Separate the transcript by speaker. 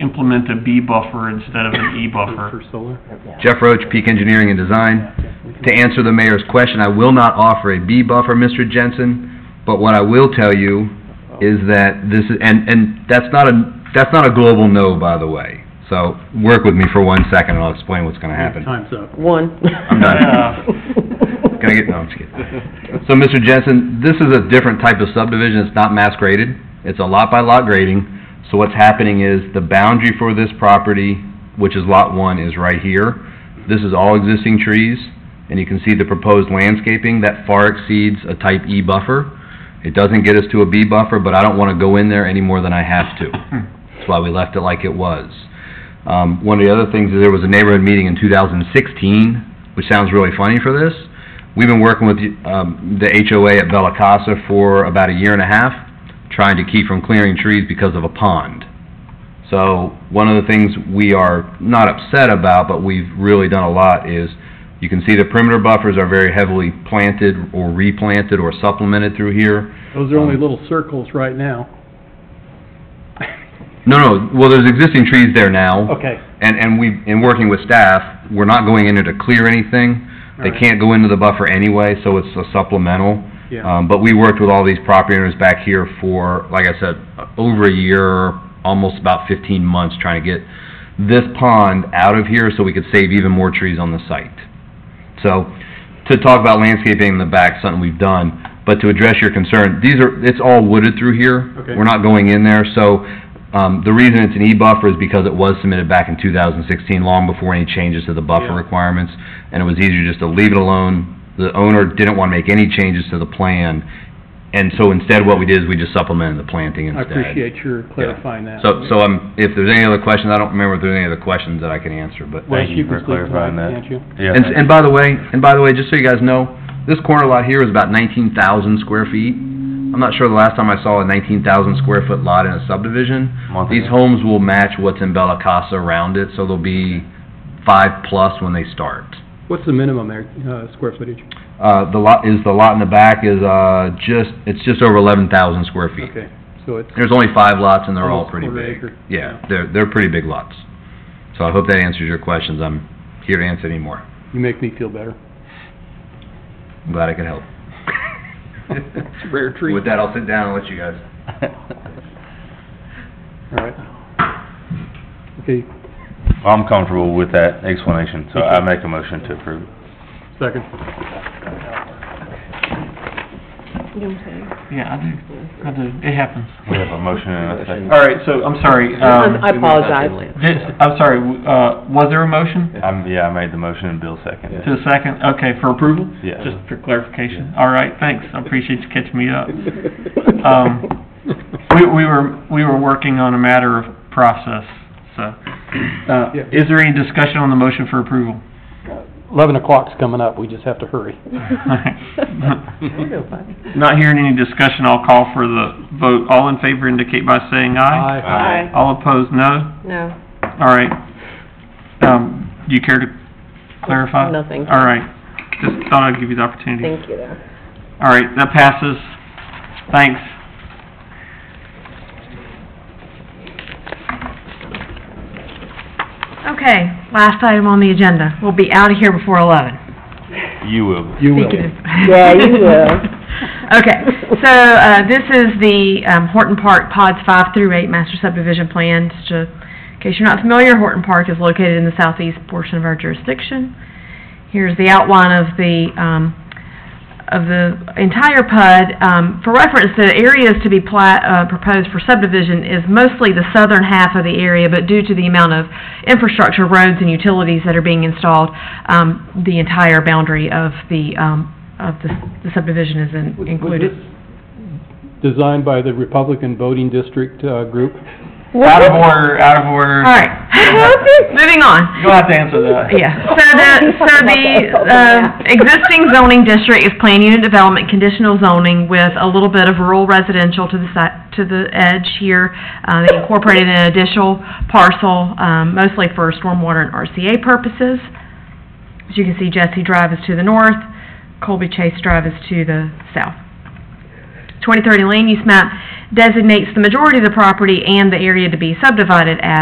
Speaker 1: implement a B buffer instead of an E
Speaker 2: Uh-huh.
Speaker 1: buffer.
Speaker 3: For solar?
Speaker 2: Jeff Roach, Peak Engineering and Design. To answer the mayor's question, I will not offer a B buffer, Mr. Jensen, but what I will tell you is that this, is and, and that's not a, that's not a global no, by the way. So, work with me for one second and I'll explain what's gonna happen.
Speaker 3: Time's up.
Speaker 4: One.
Speaker 2: I'm done.
Speaker 1: Yeah.
Speaker 2: Can I get, no, I'm just kidding. So, Mr. Jensen, this is a different type of subdivision, it's not mass graded, it's a lot by lot grading. So what's happening is the boundary for this property, which is lot one, is right here. This is all existing trees, and you can see the proposed landscaping that far exceeds a type E buffer. It doesn't get us to a B buffer, but I don't wanna go in there any more than I have to. That's why we left it like it was. Um, one of the other things is there was a neighborhood meeting in two thousand sixteen, which sounds really funny for this. We've been working with, um, the HOA at Bella Casa for about a year and a half, trying to keep from clearing trees because of a pond. So, one of the things we are not upset about, but we've really done a lot is, you can see the perimeter buffers are very heavily planted or replanted or supplemented through here.
Speaker 3: Those are only little circles right now.
Speaker 2: No, no, well, there's existing trees there now.
Speaker 3: Okay.
Speaker 2: And, and we, in working with staff, we're not going in there to clear anything. They
Speaker 3: Alright.
Speaker 2: can't go into the buffer anyway, so it's a supplemental.
Speaker 3: Yeah.
Speaker 2: Um, but we worked with all these property owners back here for, like I said, over a year, almost about fifteen months, trying to get this pond out of here so we could save even more trees on the site. So, to talk about landscaping in the back, something we've done, but to address your concern, these are, it's all wooded through here.
Speaker 3: Okay.
Speaker 2: We're not going in there, so, um, the reason it's an E-buffer is because it was submitted back in two thousand sixteen, long before any changes to the buffer
Speaker 3: Yeah.
Speaker 2: requirements, and it was easier just to leave it alone. The owner didn't wanna make any changes to the plan, and so instead what we did is we just supplemented the planting
Speaker 3: I
Speaker 2: instead.
Speaker 3: appreciate your
Speaker 2: Yeah.
Speaker 3: clarifying that.
Speaker 2: So, so, um, if there's any other questions, I don't remember if there's any other questions that I can answer, but.
Speaker 3: Wes,
Speaker 5: Thank you
Speaker 3: can
Speaker 5: for
Speaker 3: speak to
Speaker 5: clarifying that.
Speaker 3: Can't you?
Speaker 5: Yeah,
Speaker 2: And, and by the way, and by the way, just so you guys know, this corner lot here is about nineteen thousand square feet. I'm not sure the last time I saw a nineteen thousand square foot lot in a subdivision.
Speaker 5: Month
Speaker 2: These
Speaker 5: ago.
Speaker 2: homes will match what's in Bella Casa around it, so they'll be five plus when they start.
Speaker 3: What's the minimum there, uh, square footage?
Speaker 2: Uh, the lot, is the lot in the back is, uh, just, it's just over eleven thousand square feet.
Speaker 3: Okay, so it's,
Speaker 2: There's only five lots and they're all
Speaker 3: Almost
Speaker 2: pretty
Speaker 3: quarter
Speaker 2: big.
Speaker 3: acre.
Speaker 2: Yeah, they're, they're pretty big lots. So I hope that answers your questions. I'm here to answer any more.
Speaker 3: you make me feel better.
Speaker 2: I'm glad I could help.
Speaker 3: It's a rare treat.
Speaker 2: With that, I'll sit down and let you guys.
Speaker 3: All right. Okay,
Speaker 5: I'm comfortable with that explanation, so I make a motion to approve.
Speaker 3: second.
Speaker 4: You know what I'm
Speaker 1: Yeah, I do, I do, it happens.
Speaker 5: We have a motion and a second.
Speaker 1: All right, so, I'm sorry,
Speaker 4: saying? I
Speaker 1: um,
Speaker 4: apologize.
Speaker 1: this, I'm sorry, uh, was there a motion
Speaker 5: I'm, yeah, I made the motion and Bill seconded.
Speaker 1: to a second? Okay, for approval?
Speaker 5: Yeah.
Speaker 1: Just for clarification. All right, thanks, I appreciate you catching me up. Um, We, we were, we were working on a matter of process, so. Uh,
Speaker 3: Yeah.
Speaker 1: is there any discussion on the motion for approval?
Speaker 3: Eleven o'clock's coming up, we just have to hurry.
Speaker 1: Not hearing any discussion, I'll call for the vote. All in favor indicate by saying aye.
Speaker 4: Aye.
Speaker 1: All opposed, no.
Speaker 4: No,
Speaker 1: All right. Um, do you care to clarify?
Speaker 4: Nothing.
Speaker 1: All right. Just thought I'd give you the opportunity.
Speaker 4: thank you though.
Speaker 1: All right, that passes. Thanks.
Speaker 6: Okay, last item on the agenda. We'll be out of here before 11.
Speaker 5: You will.
Speaker 3: You will.
Speaker 6: Speaking of-
Speaker 4: Yeah, you will.
Speaker 6: Okay, so uh, this is the um, Horton Park Pods 5 through 8 Master Subdivision Plan. Just to- In case you're not familiar, Horton Park is located in the southeast portion of our jurisdiction. Here's the outline of the, um, of the entire PUD. Um, For reference, the areas to be pla- uh, proposed for subdivision is mostly the southern half of the area, but due to the amount of infrastructure, roads, and utilities that are being installed, um, the entire boundary of the, um, of the the subdivision is in-
Speaker 3: Was- was
Speaker 6: included.
Speaker 3: this Designed by the Republican voting district, uh, group?
Speaker 1: Out of order, out of order.
Speaker 6: All right, moving on.
Speaker 1: You'll have to answer that.
Speaker 6: Yeah, so the, so the, uh, existing zoning district is plan unit development, conditional zoning with a little bit of rural residential to the si, to the edge here. Uh, they incorporated an additional parcel, um, mostly for stormwater and RCA purposes. As you can see, Jesse Drive is to the north, Colby Chase Drive is to the south. 2030 land use map designates the majority of the property and the area to be subdivided as